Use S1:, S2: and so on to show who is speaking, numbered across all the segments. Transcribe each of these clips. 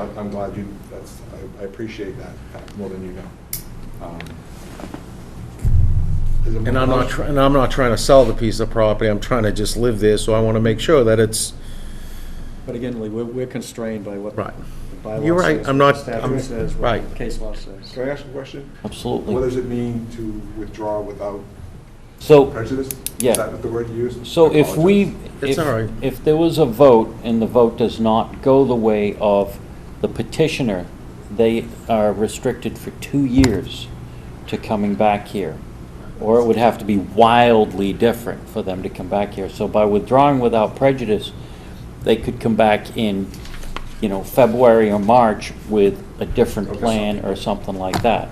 S1: I- I'm glad you, that's, I- I appreciate that fact more than you know. Um, is it
S2: And I'm
S1: more-
S2: not, try- and I'm not trying to sell the piece of property, I'm trying to just live there, so I want to make sure that it's,
S3: But again, Lee, we're, we're constrained by what
S2: Right.
S3: the bylaw
S2: You're right,
S3: says,
S2: I'm
S3: what
S2: not-
S3: the
S2: I'm-
S3: Statute says,
S2: right.
S3: what the case law says.
S1: Can I ask a question? What
S4: Absolutely.
S1: does it mean to withdraw without
S4: So,
S1: prejudice?
S4: Yeah.
S1: Is that what the word you used?
S4: so
S1: I
S4: if we,
S2: It's
S4: if,
S2: all right.
S4: if there was a vote and the vote does not go the way of the petitioner, they are restricted for two years to coming back here. Or it would have to be wildly different for them to come back here. So by withdrawing without prejudice, they could come back in, you know, February or March with a different
S1: Okay.
S4: plan or something like that.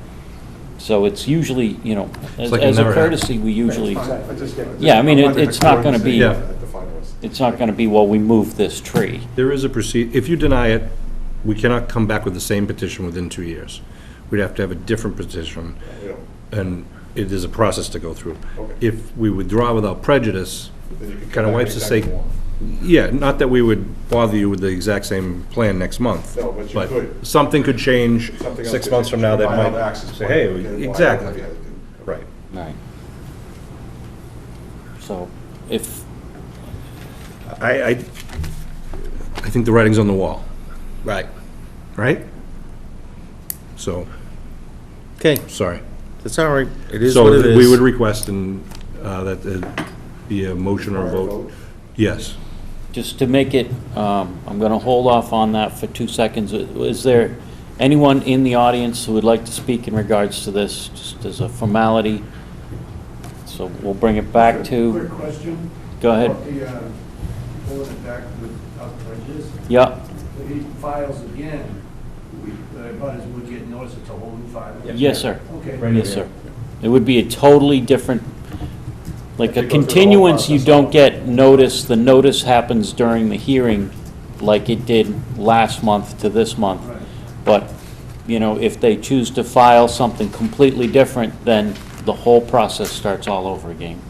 S4: So it's usually, you know, as
S5: like it
S4: as a
S5: never happened.
S4: courtesy, we usually.
S1: It's fine, I just-
S4: Yeah, I mean,
S1: I'm
S4: it-
S1: wondering if
S4: it's not gonna be-
S1: coordinates at the finals.
S4: It's not going to be, well, we move this tree.
S5: There is a proceed, if you deny it, we cannot come back with the same petition within two years. We'd have to have a different petition,
S1: You know,
S5: and it is a process to go through.
S1: Okay.
S5: If we withdraw without prejudice,
S1: then you can come
S5: kind of
S1: back
S5: wipes the
S1: anytime
S5: slate.
S1: you want.
S5: Yeah, not that we would bother you with the exact same plan next month.
S1: No, but you could.
S5: something could change
S1: Something else
S5: six
S1: that-
S5: months from now that
S1: provide all the
S5: might
S1: access
S5: say,
S1: point,
S5: hey,
S1: you know, why-
S5: we- exactly,
S1: yeah, okay.
S5: right.
S4: Right. So if,
S5: I, I, I think the writing's on the wall. Right. Right? So,
S2: okay,
S5: sorry.
S2: it's all right, it is what
S5: So
S2: it
S5: th- we would
S2: is.
S5: request and, uh, that uh, be a motion or a vote. Yes.
S4: just to make it, um, I'm going to hold off on that for two seconds. Is there anyone in the audience who would like to speak in regards to this, just as a formality? So we'll bring it back
S6: Quick
S4: to,
S6: question.
S4: Go ahead.
S6: About the, uh, pulling it back without prejudice.
S4: yeah,
S6: If he files again, we, the abutters would get notice it's a whole new file.
S4: yes, sir.
S6: Okay.
S4: Yes, sir. It would be a totally different, like
S1: Have
S4: a
S1: to go through the whole
S4: continuance, you
S1: process.
S4: don't get notice, the notice happens during the hearing like it did last month to this month.
S6: Right.
S4: But, you know, if they choose to file something completely different, then the whole process starts all over again.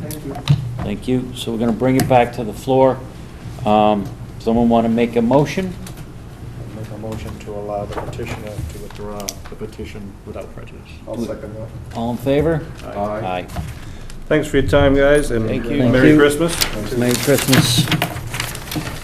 S6: Thank you.
S4: Thank you. So we're going to bring it back to the floor. Um, Someone want to make a motion?
S3: Make a motion to allow the petitioner to withdraw the petition without prejudice.
S1: I'll second that.
S4: All in favor?
S1: Aye.
S4: Aye.
S5: Thanks for your time, guys, and
S4: you.
S5: Merry
S4: Thank you.
S5: Christmas.
S4: Merry Christmas.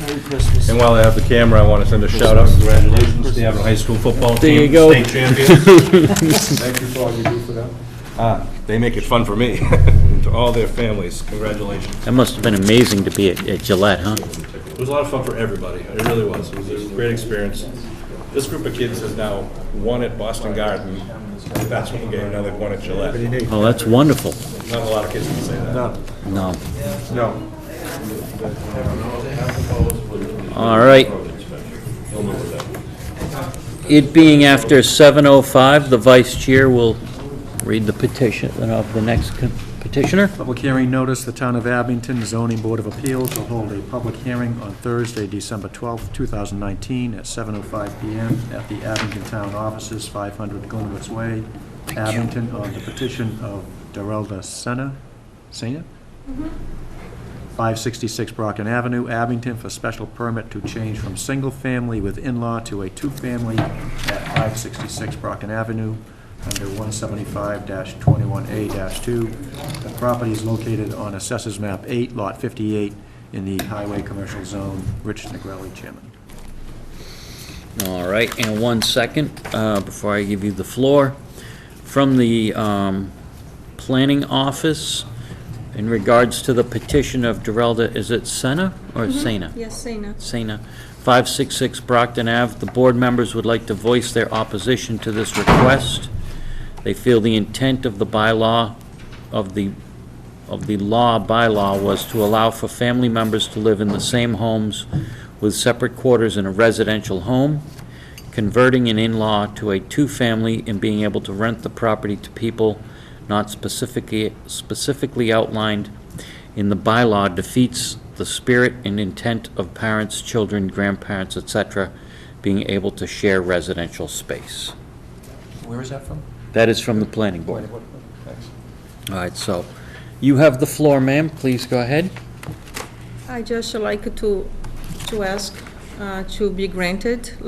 S3: Merry Christmas.
S5: And while I have the camera, I want to send a shout out and congratulations to the Avon High School football team.
S4: There you go.
S5: State champions.
S1: Thank you for all you do for them.
S5: Ah, They make it fun for me, and to all their families. Congratulations.
S4: That must have been amazing to be at at Gillette, huh?
S5: It was a lot of fun for everybody. It really was. It was a great experience. This group of kids has now won at Boston Garden basketball game. Now they've won at Gillette.
S4: Oh, that's wonderful.
S5: Not a lot of kids can say that.
S4: No.
S1: No.
S4: All right. It being after 7:05, the vice chair will read the petition uh, of the next co- petitioner.
S3: Public hearing notice, the Town of Abington Zoning Board of Appeals will hold a public hearing on Thursday, December 12th, 2019, at 7:05 PM at the Abington Town Offices, 500 Glenwood's Way, Abington, on the petition of Darrelda Senna, Senior, 566 Brocken Avenue, Abington, for special permit to change from single-family with in-law to a two-family at 566 Brocken Avenue, under 175-21A-2. The property is located on Assessors Map 8, Lot 58, in the Highway Commercial Zone. Rich Negrelli, Chairman.
S4: All right, and one second, uh, before I give you the floor. From the um, planning office, in regards to the petition of Derelda, is it Senna or Sena?
S7: Mm-hmm. Yes, Sina.
S4: Sena, 566 Brockton Ave. The board members would like to voice their opposition to this request. They feel the intent of the bylaw, of the, of the law bylaw was to allow for family members to live in the same homes with separate quarters in a residential home, converting an in-law to a two-family and being able to rent the property to people not specifically, specifically outlined in the bylaw defeats the spirit and intent of parents, children, grandparents, etc., being able to share residential space.
S3: Where is that from?
S4: That is from the planning board. All right, so you have the floor, ma'am. Please go ahead.
S7: I just like to, to ask uh, to be granted,